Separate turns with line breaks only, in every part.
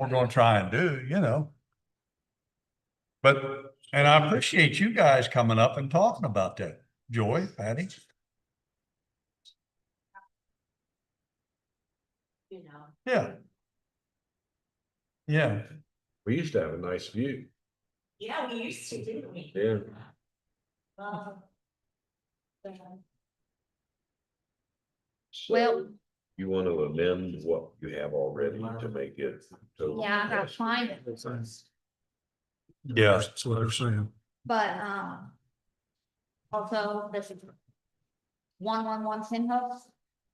we're gonna try and do, you know. But, and I appreciate you guys coming up and talking about that. Joy, Patty,
you know,
yeah. Yeah,
We used to have a nice view.
yeah, we used to, didn't we?
Yeah.
Um, um,
So
Well,
You want to amend what you have already to make it. so-
yeah, I got climate,
yeah,
That's what they're saying.
but, um. Also, this is. One, one, one, ten hooks,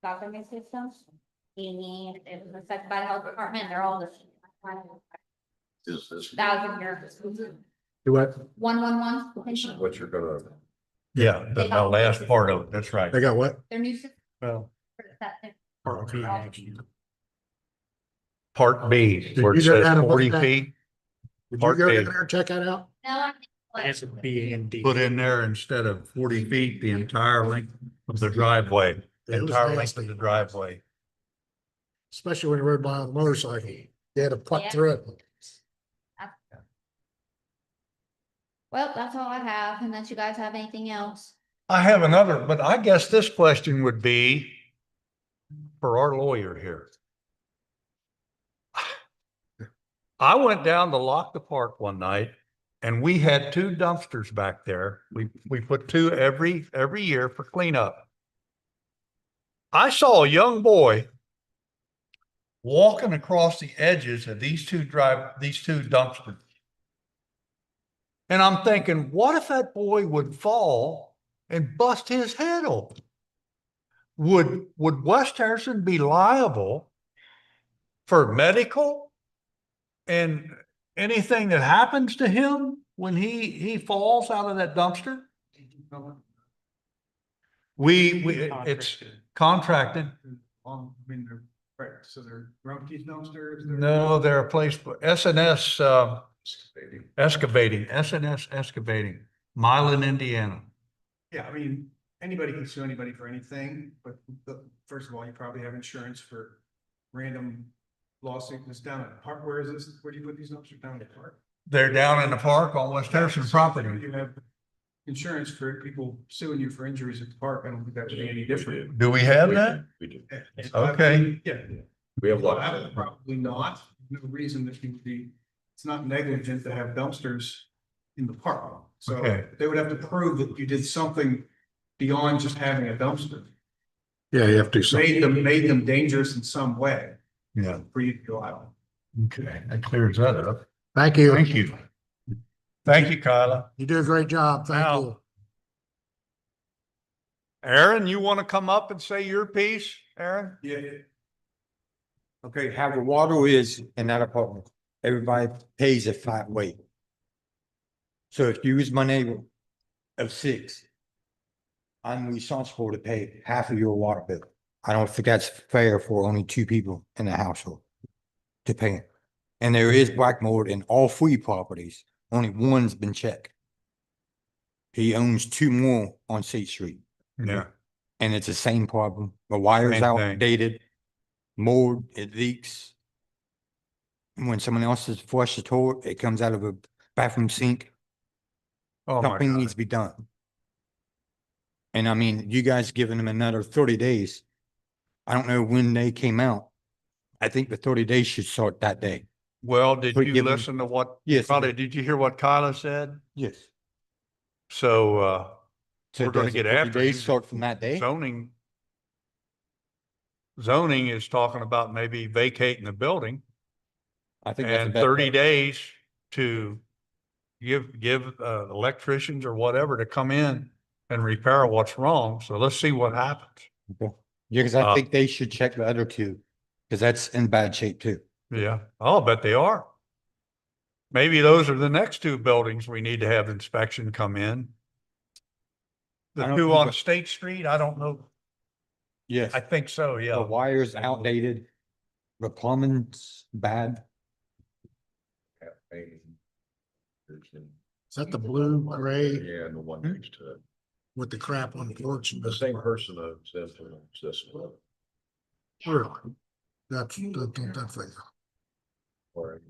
balcony systems, and it was affected by the health department, they're all the.
Is this
Thousand year,
Do what?
one, one, one, potential.
what you're gonna,
yeah, that's my last part of it, that's right.
They got what?
their new system
Well,
for the septic.
Oh, okay.
Part B,
Did
where it
you go
says
down and look
forty
at that?
feet,
Did you go
Part
down
A.
there and check that out?
No, I think, like,
a B and D.
put in there instead of forty feet, the entire length of the driveway,
It was
entire length of
nasty,
the driveway.
Especially when you rode by on a motorcycle. You had to
Yeah.
putt through it.
Well, that's all I have, unless you guys have anything else.
I have another, but I guess this question would be for our lawyer here. I went down to Lock the Park one night and we had two dumpsters back there. We, we put two every, every year for cleanup. I saw a young boy walking across the edges of these two drive, these two dumpsters. And I'm thinking, what if that boy would fall and bust his head open. Would, would West Harrison be liable for medical? And anything that happens to him when he, he falls out of that dumpster? We, we, it's contracted.
Um, I mean, they're, right, so they're Grumpy's dumpsters. they're-
No, they're a place, for S and S, uh, excavating, S and S excavating, Milan, Indiana.
Yeah, I mean, anybody can sue anybody for anything, but the, first of all, you probably have insurance for random lawsuit that's down at the park. Where is this? Where do you put these dumpsters down at the park?
They're down in the park on West Harrison property.
You have insurance for people suing you for injuries at the park. I don't think that would be any different.
Do we have
We-
that?
We do.
Okay.
Yeah.
We have lots
Well,
of.
Probably not. No reason that you would be, it's not negligent to have dumpsters in the park. So
Okay.
they would have to prove that you did something beyond just having a dumpster.
Yeah, you have to do
Made them, made them dangerous in some way
Yeah,
for you to go out.
okay, that clears that up.
Thank you.
Thank you. Thank you, Kyla.
You do a great job.
Now-
Thank you.
Aaron, you want to come up and say your piece, Aaron?
Yeah.
Okay, how the water is in that apartment, everybody pays a flat rate. So if you was my neighbor of six, I'm responsible to pay half of your water bill. I don't think that's fair for only two people in the household to pay. it. And there is black mold in all three properties, only one's been checked. He owns two more on State Street
Yeah.
and it's the same problem. The wire's
Same thing.
outdated, mold, it leaks. And When someone else has flushed the toilet, it comes out of a bathroom sink.
Oh, my
Something
God.
needs to be done. And I mean, you guys giving them another thirty days. I don't know when they came out. I think the thirty days should start that day.
Well, did
We're
you
giving-
listen to what,
Yes.
probably, did you hear what Kyla said?
Yes.
So, uh,
So
We're gonna
does the
get
30
after
days
him.
Start from that day?
zoning. Zoning is talking about maybe vacating the building
I think that's a
and
better
thirty
plan.
days to give, give, uh, electricians or whatever to come in and repair what's wrong. So let's see what happens.
Okay. Yeah, because
Uh,
I think they should check the other two, because that's in bad shape too.
Yeah, I'll bet they are. Maybe those are the next two buildings we need to have inspection come in.
I
The
don't
two
think
on
that-
State Street, I don't know.
Yes.
I think so,
The
yeah.
wire's outdated. The plumbing's bad.
Is that the blue array
Yeah, and the one next to it.
with the crap on the porch?
The same person owns this one, owns this one.
Really? That's, that, that thing.
Or-